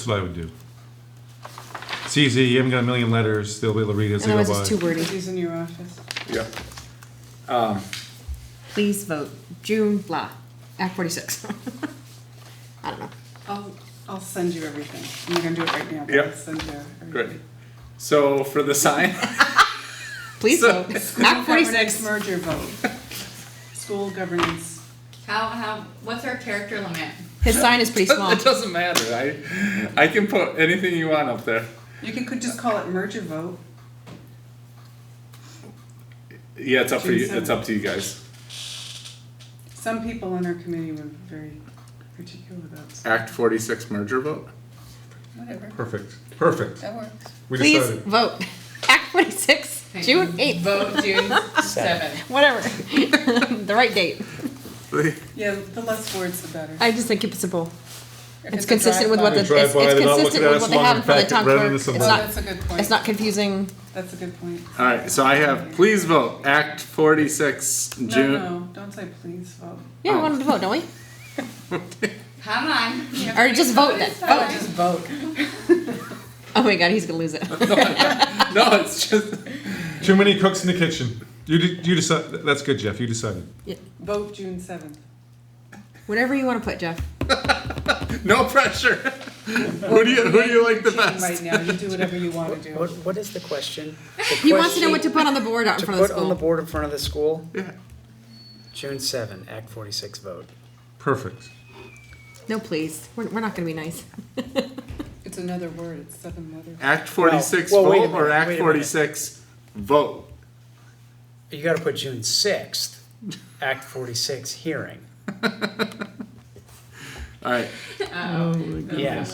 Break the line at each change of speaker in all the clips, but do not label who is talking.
That's what I would do. It's easy, you haven't got a million letters, they'll be able to read it as they go
Otherwise, it's too
by.
wordy.
He's in your office.
Yeah.
Please vote June blah, Act 46. I don't know.
I'll, I'll send you everything. I'm gonna do it right now, but
Yeah.
I'll send you everything.
Good. So for the sign,
Please
So-
vote
School
Act
governance
46.
merger vote. School governance.
How how what's our character limit?
His sign is pretty small.
it doesn't matter. I, I can put anything you want up there.
You can, could just call it merger vote.
Yeah, it's up for you.
Jason.
It's up to you guys.
Some people on our committee were very particular about s-
Act forty-six merger vote.
whatever.
Perfect, perfect.
That works.
We
Please
decided.
vote Act 46,
Thank
June
you.
8th,
Vote June seventh.
whatever. The right date.
Yeah, the less words, the better.
I just think it's simple.
If
It's consistent with what
They
the, it's
drive
it's
by, they're not looking
consistent
at
with
us
what they
long
have for the
packet
town
rather than
clerk. It's
some-
Oh,
not,
that's a good
it's
point.
not confusing.
That's a good point.
All right. So I have. Please vote. Act forty-six June.
No, no, don't say please vote.
Yeah, we wanted to vote, don't we?
Come on.
Or just vote then.
Oh,
Vote.
just
vote.
Oh my god, he's gonna lose it.
No, it's just.
Too many cooks in the kitchen. You, de- you decide, that's good, Jeff, you decided.
Vote June seventh.
Whatever you want to put, Jeff.
No pressure. who do you Who do you like the
Right
best?
now, you do whatever you wanna do.
What, what is the question? The
He wants to know
question-
what to put on the board out in
to
front of
put
the
on the
school.
board in front of the school?
Yeah.
June seven, Act forty-six vote.
Perfect.
No, please. We're, we're not gonna be nice.
It's another word, it's seven letters.
Act forty-six
Well, well, wait a
vote or
minute,
Act
wait a minute.
forty-six vote.
You gotta put June sixth, Act forty-six hearing.
All right.
Yeah,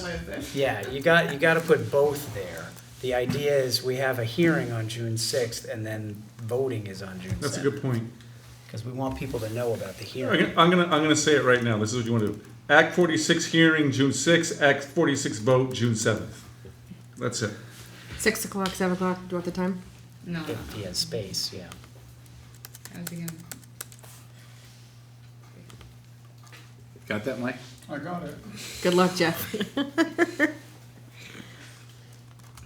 yeah, you got, you gotta put both there. The idea is we have a hearing on June sixth and then voting is on June
That's a
seventh.
good point.
Because we want people to know about the
I'm
hearing.
gonna, I'm gonna, I'm gonna say it right now, this is what you wanna do. Act forty-six hearing, June sixth, Act forty-six vote, June seventh. That's it.
Six o'clock, seven o'clock. Do you want the time?
no. no.
If he has space, yeah.
I was thinking-
Got that, Mike?
I got it.
Good luck, Jeff.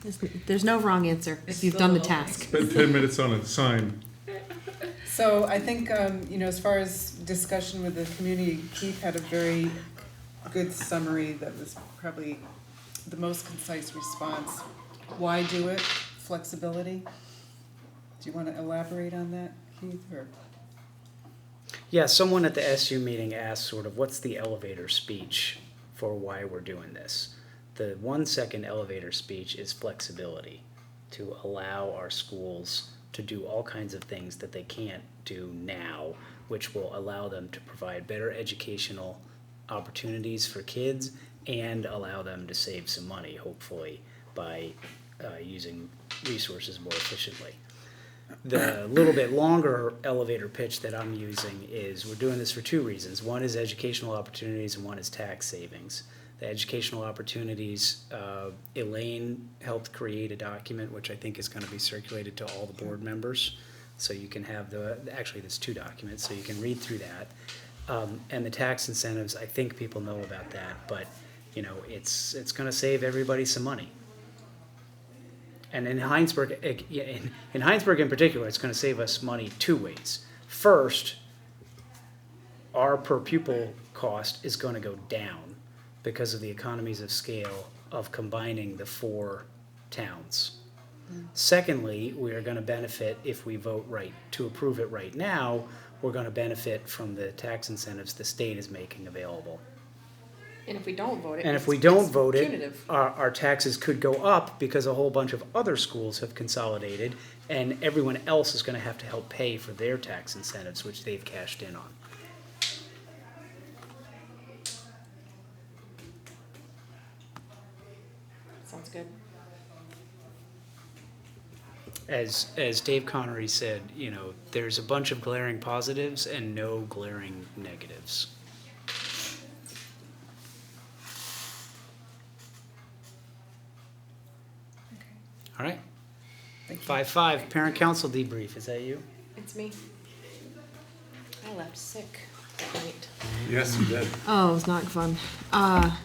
there's, there's no wrong answer if
It's
you've
still
done the
a-
task.
Spend ten minutes on a sign.
So I think, um, you know, as far as discussion with the community, Keith had a very good summary that was probably the most concise response. Why do it? Flexibility? Do you wanna elaborate on that, Keith, or?
Yeah, someone at the SU meeting asked sort of what's the elevator speech for why we're doing this. The one second elevator speech is flexibility to allow our schools to do all kinds of things that they can't do now, which will allow them to provide better educational opportunities for kids and allow them to save some money, hopefully, by uh, using resources more efficiently the little bit longer elevator pitch that I'm using is we're doing this for two reasons. One is educational opportunities, and one is tax savings. The educational opportunities, uh, Elaine helped create a document which I think is going to be circulated to all the board members. So you can have the, actually, there's two documents, so you can read through that. Um, and the tax incentives, I think people know about that, but you know, it's it's going to save everybody some money. And in Heinsberg, eh, yeah, in, in Heinsberg in particular, it's going to save us money two ways. First, our per pupil cost is going to go down because of the economies of scale of combining the four towns. Secondly, we are going to benefit if we vote right to approve it right now. We're going to benefit from the tax incentives the state is making available.
And if we don't vote it,
And if we don't vote it, our, our taxes could go up because a whole bunch of other schools have consolidated and everyone else is gonna have to help pay for their tax incentives, which they've cashed in on.
sounds good.
As, as Dave Connery said, you know, there's a bunch of glaring positives and no glaring negatives. All right. Five, five, parent council debrief, is that you?
It's me. I left sick that night.
Yes, you did.
Oh, it was not fun. Uh,